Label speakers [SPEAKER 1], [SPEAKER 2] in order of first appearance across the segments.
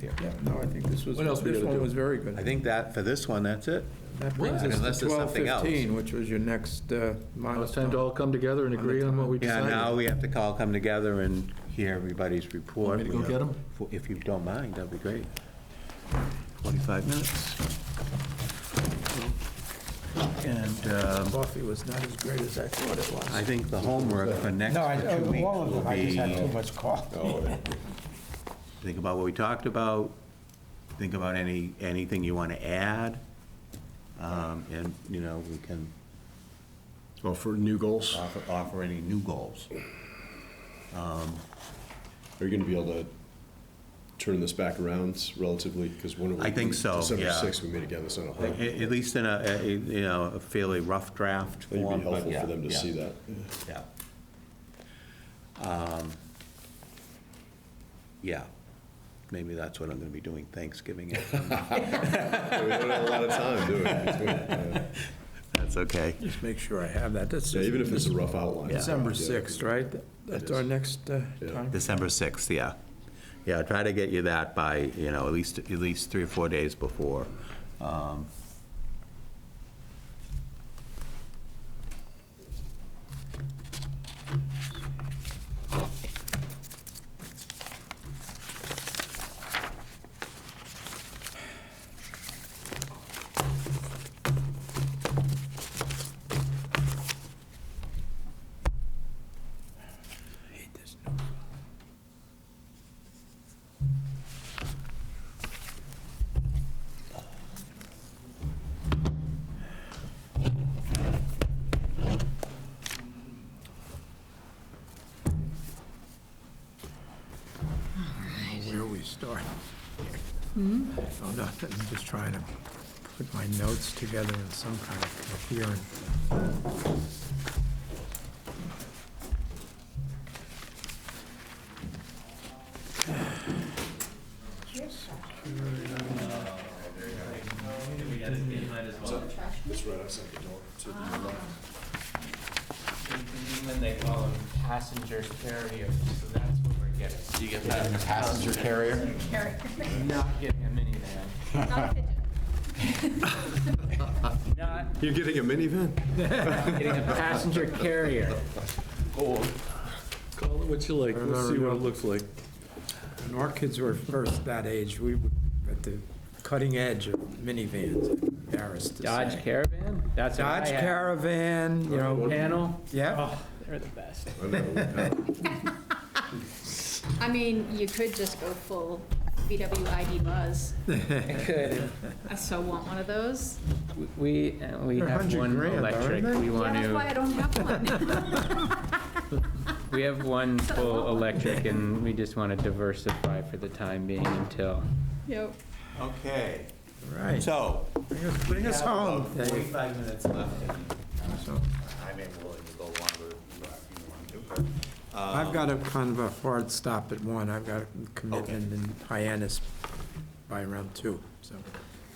[SPEAKER 1] there. Yeah, no, I think this was,
[SPEAKER 2] What else we
[SPEAKER 1] this
[SPEAKER 2] gotta
[SPEAKER 1] one
[SPEAKER 2] do?
[SPEAKER 1] was very good.
[SPEAKER 3] I think that, for this one, that's it.
[SPEAKER 1] That brings
[SPEAKER 2] Well,
[SPEAKER 1] us
[SPEAKER 3] unless
[SPEAKER 1] to
[SPEAKER 3] there's
[SPEAKER 1] twelve
[SPEAKER 3] something else.
[SPEAKER 1] fifteen, which was your next uh,
[SPEAKER 2] Now it's time to all
[SPEAKER 1] milestone.
[SPEAKER 2] come together and agree on what we
[SPEAKER 3] Yeah,
[SPEAKER 2] decided.
[SPEAKER 3] now we have to all come together and hear everybody's report.
[SPEAKER 2] Want me to go get 'em?
[SPEAKER 3] If you don't mind, that'd be great. 45 minutes. And um,
[SPEAKER 1] Coffee was not as great as I thought it
[SPEAKER 3] I
[SPEAKER 1] was.
[SPEAKER 3] think the homework for next
[SPEAKER 4] No, I,
[SPEAKER 3] two weeks
[SPEAKER 4] all of
[SPEAKER 3] will
[SPEAKER 4] them, I just had too
[SPEAKER 3] be,
[SPEAKER 4] much coffee.
[SPEAKER 3] think about what we talked about, think about any, anything you want to add, um, and, you know, we can
[SPEAKER 5] Oh, for new goals?
[SPEAKER 3] offer, offer any new goals.
[SPEAKER 5] Are you going to be able to turn this back around relatively? Because when are we?
[SPEAKER 3] I think so,
[SPEAKER 5] December
[SPEAKER 3] yeah.
[SPEAKER 5] 6th, we meet again, that's not a whole.
[SPEAKER 3] At,
[SPEAKER 5] It'd
[SPEAKER 3] at least in a, a- a, you know, a fairly rough draft
[SPEAKER 5] be
[SPEAKER 3] form. but
[SPEAKER 5] helpful
[SPEAKER 3] yeah,
[SPEAKER 5] for them to
[SPEAKER 3] yeah,
[SPEAKER 5] see that. Yeah.
[SPEAKER 3] Yeah. Um, Yeah, maybe that's what I'm gonna be doing Thanksgiving.
[SPEAKER 5] We don't have a lot of time, do we? Between, uh,
[SPEAKER 3] That's okay.
[SPEAKER 1] Just make sure I have that. That's
[SPEAKER 5] Yeah, even if it's a rough outline.
[SPEAKER 1] December
[SPEAKER 5] Yeah.
[SPEAKER 1] 6th, right? That's our next uh,
[SPEAKER 5] Yeah.
[SPEAKER 1] time.
[SPEAKER 3] December 6th, yeah. Yeah, try to get you that by, you know, at least, at least three or four days before. Um,
[SPEAKER 1] Where we start? Oh, nothing, I'm just trying to put my notes together in some kind of coherent.
[SPEAKER 5] It's right outside the door. so it'd be a lot.
[SPEAKER 6] In England, they call them passenger carriers, so that's what we're getting. You get that in a passenger carrier?
[SPEAKER 7] Carrot.
[SPEAKER 6] Not getting a minivan.
[SPEAKER 7] Not a pigeon.
[SPEAKER 6] Not
[SPEAKER 5] You're getting a minivan?
[SPEAKER 6] getting a passenger carrier.
[SPEAKER 2] Call it what you like, let's see what it looks like.
[SPEAKER 1] When our kids were first that age, we were at the cutting edge of minivans, embarrassed to
[SPEAKER 6] Dodge
[SPEAKER 1] say.
[SPEAKER 6] Caravan? That's what I
[SPEAKER 1] Dodge
[SPEAKER 6] had.
[SPEAKER 1] Caravan, you know,
[SPEAKER 6] Panel?
[SPEAKER 1] yeah.
[SPEAKER 6] Oh, they're the best.
[SPEAKER 5] I know.
[SPEAKER 7] I mean, you could just go full VW ID Buzz.
[SPEAKER 6] Good.
[SPEAKER 7] I so want one of those.
[SPEAKER 6] We, uh, we
[SPEAKER 1] They're
[SPEAKER 6] have
[SPEAKER 1] 100
[SPEAKER 6] one
[SPEAKER 1] grand, aren't
[SPEAKER 6] electric,
[SPEAKER 1] they?
[SPEAKER 6] we
[SPEAKER 7] Yeah,
[SPEAKER 6] want
[SPEAKER 7] that's why
[SPEAKER 6] to,
[SPEAKER 7] I don't have one.
[SPEAKER 6] we have one full electric and we just want to diversify for the time being until.
[SPEAKER 7] Yep.
[SPEAKER 3] Okay,
[SPEAKER 1] Right.
[SPEAKER 3] so.
[SPEAKER 1] Bring us- Bring us home, Dave.
[SPEAKER 3] Forty-five minutes left.
[SPEAKER 1] So,
[SPEAKER 3] I may be willing to go longer if you want to.
[SPEAKER 1] I've got a kind of a hard stop at one. I've got a commitment in Hyannis by around two, so.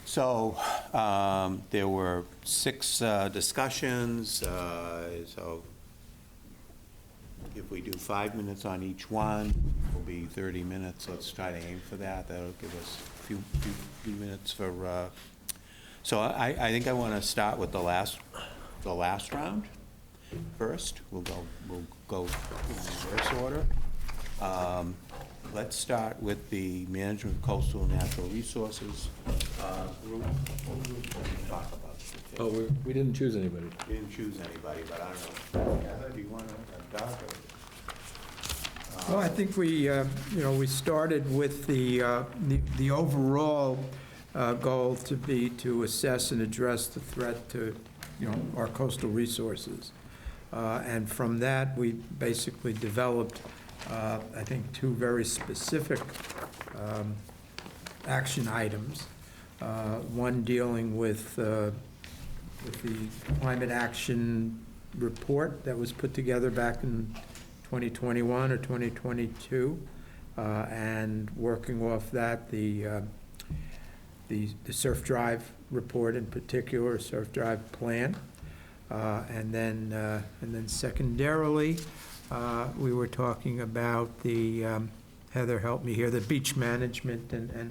[SPEAKER 3] So, um, there were six uh, discussions, uh, so if we do five minutes on each one, it'll be 30 minutes, let's try to aim for that, that'll give us a few, few- few minutes for, uh, so I, I think I want to start with the last, the last round first, we'll go, we'll go in reverse order. Um, Let's start with the management of coastal and natural resources uh, group. What group did we talk about?
[SPEAKER 2] Oh, we, we didn't choose anybody.
[SPEAKER 3] We didn't choose anybody, but I don't know. Heather, do you uh, want to adopt it?
[SPEAKER 1] Well, I think we, uh, you know, we started with the, uh, the- the overall uh, goal to be to assess and address the threat to, you know, our coastal resources. Uh, And from that, we basically developed, uh, I think, two very specific um, action items. Uh, One dealing with uh, with the climate action report that was put together back in 2021 or 2022, uh, and working off that, the, uh, the the surf drive report in particular, surf drive plan. Uh, And then, uh, and then secondarily, uh, we were talking about the, um, Heather, help me here, the beach management and, and